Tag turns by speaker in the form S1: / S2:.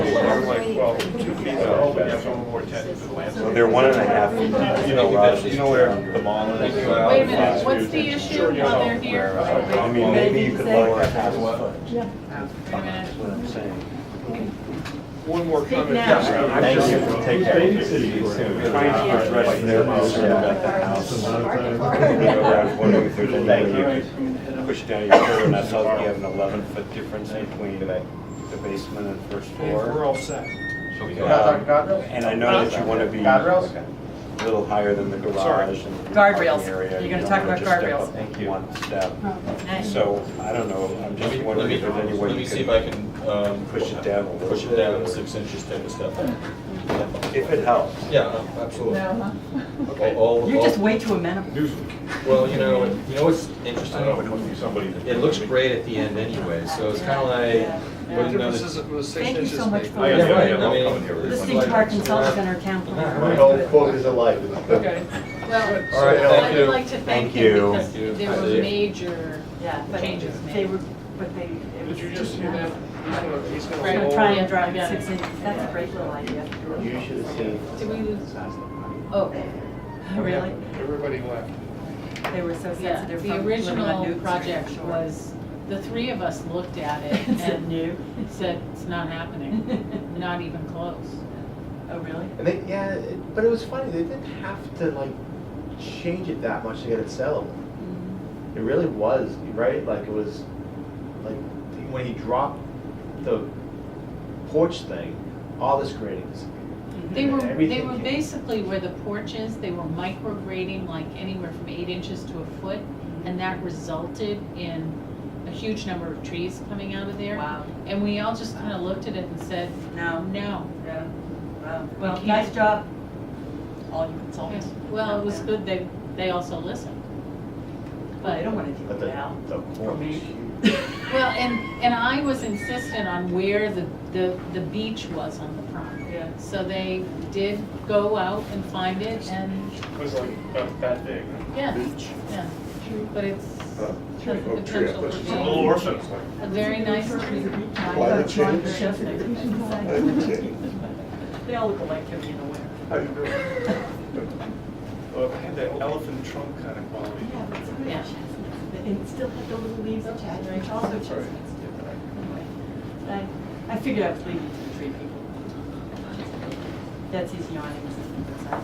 S1: They're one and a half. You know, Raj, you know where the mall is?
S2: Wait a minute, what's the issue while they're here?
S1: I mean, maybe you could lower it half a foot.
S2: Wait a minute.
S1: That's what I'm saying.
S3: One more
S2: Speak
S3: comment.
S2: now.
S1: Thank you for taking Right there, about the house. Thank you. Push down your curb, and I saw that you have an eleven foot difference between the basement and first
S3: We're
S1: floor.
S3: all set.
S4: uh,
S1: Um, And I know that you want to be
S5: Guardrails?
S1: a little higher than the
S3: Sorry.
S1: garage and. the
S6: Guardrails.
S1: parking area.
S6: You're
S1: You
S6: gonna
S1: don't
S6: talk
S1: wanna
S6: about
S1: just step
S6: guardrails.
S1: up
S5: Thank you.
S1: One step.
S6: Nice.
S1: So, I don't know, I'm
S4: Let
S1: just
S4: me, let
S1: wondering
S4: me,
S1: if there's any way
S4: let me
S1: you
S4: see if
S1: could,
S4: I can, um.
S1: push it down a little
S4: Push it
S1: bit.
S4: down six inches, take a step back.
S1: if it helps.
S4: Yeah, uh, absolutely.
S3: Okay.
S4: All- all-
S6: You're just way too amenable.
S4: Well, you know, you know what's interesting?
S5: somebody.
S4: It looks great at the end anyway, so it's kind of like,
S3: What
S4: wouldn't know
S3: difference
S4: that-
S3: is it with six
S6: Thank you
S3: inches?
S6: so much
S3: made?
S6: for
S5: yeah,
S4: Yeah, right,
S5: yeah,
S4: I mean,
S5: I'll come in here.
S4: it's
S6: listening
S4: like-
S6: to our consultant and our town
S5: My
S6: planner.
S5: whole quote is alive.
S3: Okay.
S2: Well,
S4: All right,
S2: I
S4: thank
S2: would
S4: you.
S2: like to thank
S1: Thank
S2: him
S1: you.
S2: because
S4: Thank you.
S2: there were
S4: Thank you.
S2: major
S6: Yeah, but
S2: changes
S6: They
S2: made.
S6: were, but they. it
S3: Did
S6: was-
S3: you just hear that? He's gonna, he's gonna.
S6: They're gonna
S3: roll.
S6: try and drive it six inches. That's a great little idea.
S5: You should have seen.
S2: Did we lose?
S6: Oh, really?
S3: Everybody left.
S6: They were so
S2: Yeah,
S6: sensitive.
S2: the
S6: from living on
S2: original
S6: Newton Street.
S2: project was, the three of us looked at it
S6: Is it
S2: and
S6: new?
S2: said, it's not happening, not even close.
S6: Oh, really?
S5: And they, yeah, it- but it was funny, they didn't have to like change it that much to get it sellable.
S6: Mm-hmm.
S5: It really was, right? Like it was, like when he dropped the porch thing, all this grading disappeared.
S6: Mm-hmm.
S2: They
S5: And
S2: were, they
S5: everything
S2: were
S5: came-
S2: basically where the porch is, they were micrograding like anywhere from eight inches to a foot,
S6: Mm-hmm.
S2: and that resulted in a huge number of trees coming out of there.
S6: Wow.
S2: And we all just kind of looked at it and said,
S6: No.
S2: no.
S6: Yeah. Wow.
S2: We
S6: Well,
S2: can't-
S6: nice job, all you consultants.
S2: Well, it was good they, they also listened.
S6: But I
S2: But,
S6: don't want to deal
S5: But
S6: with
S5: the,
S6: that.
S5: the
S6: For
S5: porch.
S6: me.
S2: well, and, and I was insistent on where the, the, the beach was on the prom.
S6: Yeah.
S2: So they did go out and find it and,
S3: It was like uh, about that big.
S2: yeah, yeah. But it's
S3: Uh, oh,
S2: has the potential for
S3: It's a little
S2: being
S3: orphan.
S2: a very nice tree.
S7: Climate change?
S6: They all look alike to me in a way.
S3: Well, it uh, had that elephant trunk kind of quality.
S6: Yeah, but some of the
S2: Yeah.
S6: chestnuts, and it still had the little leaves of chestnuts, which also chestnuts do. Anyway, I, I figured I was leaving to the tree people. That's his yawning.